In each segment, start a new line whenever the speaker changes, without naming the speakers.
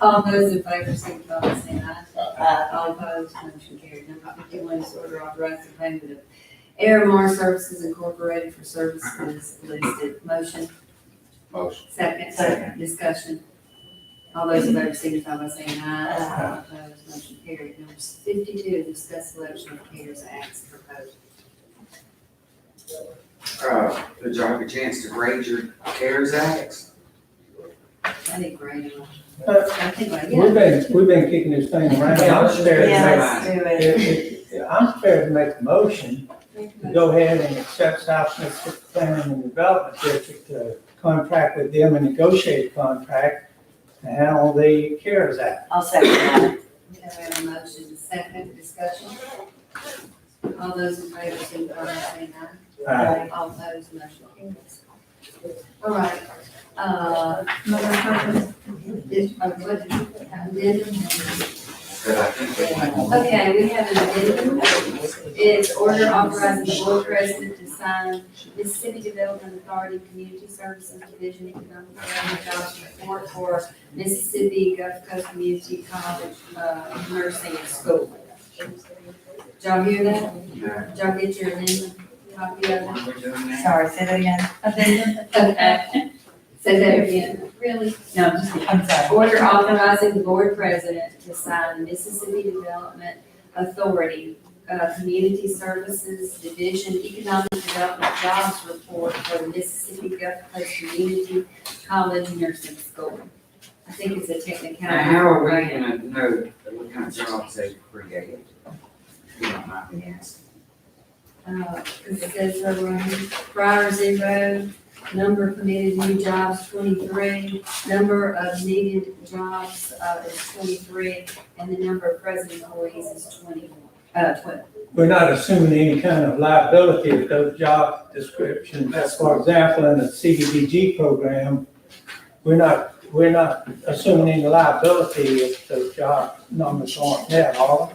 All those in favor, signify by saying aye. Aye. uh, All opposed, motion carried. Number fifty-one is order authorizing payment of Airmar Services Incorporated for services listed. Motion,
Motion.
second.
Second.
Discussion. All those in favor, signify by saying aye.
Aye.
All opposed, motion carried. Number fifty-two, discuss selection of CARES Act proposal.
Uh, did y'all have a chance to grade your CARES acts?
I think we're in on-
But-
I think, like,
We've
yeah.
been, we've been kicking this thing around. I'm scared to
Yeah,
make,
let's do it.
if- if- I'm scared to make a motion to go ahead and accept South Mississippi Planning and Development District to contract with them and negotiate a contract to handle the CARES Act.
I'll second that.
We have a motion, second discussion. All those in favor, signify by saying aye.
Uh,
All opposed, motion carries. All right, uh, Mother Purpose, is, uh, what, addendum?
But I think they might.
Okay, we have an addendum. It's order authorizing the board president to sign Mississippi Development Authority Community Services Division Economic Development Jobs Report for Mississippi Gulf Coast Community College, uh, Nursing School. Did y'all hear that?
Yeah.
Did y'all get your amendment, copy of it?
What are we doing now?
Sorry, say that again.
Say that again. Really? No, I'm just kidding.
I'm sorry.
Order authorizing the board president to sign the Mississippi Development Authority, uh, Community Services Division Economic Development Jobs Report for the Mississippi Gulf Coast Community College Nursing School. I think it's a
Now,
technicality.
how are we gonna know that what kind of jobs they created? You don't mind me asking.
Uh, it says over on here, prior zero, number of committed new jobs twenty-three, number of needed jobs, uh, is twenty-three, and the number of present employees is twenty-one, uh, twelve.
We're not assuming any kind of liability of those job descriptions. As for example, in the CDBG program, we're not, we're not assuming any liability if those job numbers aren't there, are we?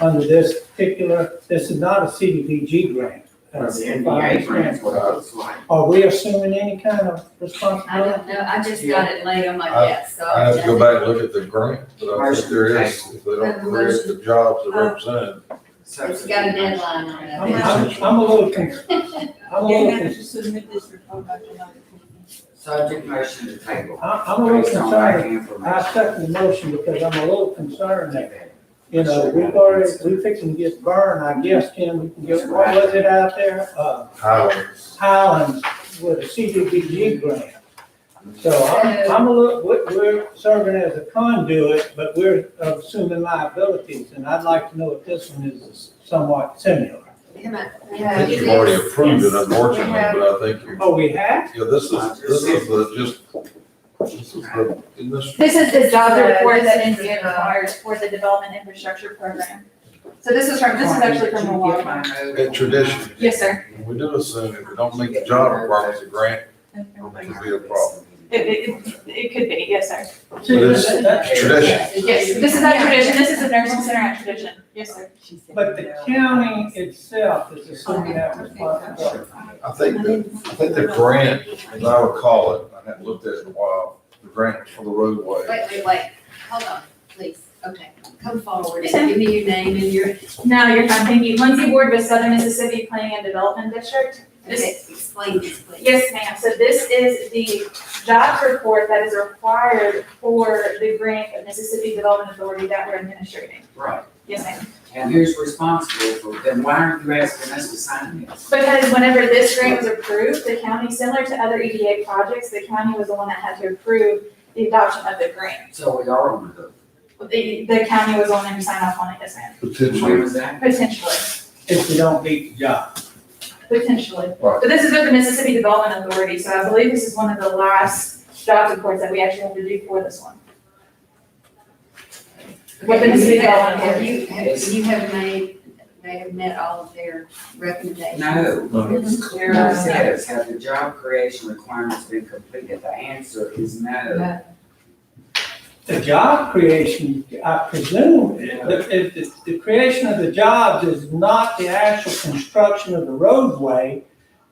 Under this particular, this is not a CDBG grant.
Well,
That's
the
if I
NBA
understand
grants, what it
correctly.
looks like.
Are we assuming any kind of
I
responsibility?
don't know, I just got it late on my
I-
desk, so.
I have to go back and look at the grant, but I think there is, if they don't create the jobs that represent.
So-
It's got a deadline on it.
I'm, I'm- I'm a little concerned. I'm a little,
Yeah,
con-
just submit this report back to another company.
Subject motion to table.
I- Oh, I'm a little
Based on lack of
concerned. I
information.
second the motion because I'm a little concerned that You know, we've already, we fixing to get burned, I guess, Ken, we can get, what was it out there? Uh,
Highlands.
Highlands with a CDBG grant. So I'm, I'm a little, we're, we're serving as a conduit, but we're assuming liabilities, and I'd like to know if this one is somewhat similar.
Come on.
I think you've already approved it unfortunately, but I think you,
Oh, we have?
yeah, this is, this is the, just, this is the, in this,
This is the job
So
report that
this is
NDA
the-
requires for the development infrastructure program. So this is from, this is actually from the law.
in tradition.
Yes, sir.
We do assume if we don't meet the job requirements, the grant
Oh
could be a problem.
It, it, it- it could be, yes, sir.
See,
But
that-
it's
that-
tradition.
Yes, this is at tradition, this is a nursing center at tradition. Yes, sir.
But the county itself is assuming that responsibility.
I think, the- I think the grant, as I recall it, I haven't looked at it in a while, the grant for the roadway.
Wait, wait, wait, hold on, please, okay, come forward, give me your name and your,
No, you're fine, thank you. Lindsay Ward with Southern Mississippi Planning and Development District. This,
okay, explain this, please.
yes, ma'am, so this is the job report that is required for the grant of Mississippi Development Authority that we're administering.
Right,
Yes, ma'am.
and who's responsible for, then why aren't you asking us to sign this?
Because whenever this grant was approved, the county, similar to other EDA projects, the county was the one that had to approve the adoption of the grant.
So we are on the,
The, the county was the one that signed off on it, yes ma'am.
when
Potentially,
was that?
Potentially,
If we don't meet the job.
potentially.
Right.
But this is with the Mississippi Development Authority, so I believe this is one of the last job reports that we actually have to do for this one. What the
You
city
have,
government
have
did.
you, have, you have made, they have met all of their recommendations?
No, it's clear
No.
as says, have the job creation requirements been completed? The answer is no.
The job creation, I presume, the, if the, the creation of the jobs is not the actual construction of the roadway,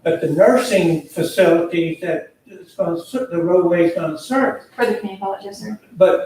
but the nursing facilities that it's gonna, ser- the roadway's gonna serve.
For the community college, yes sir.
But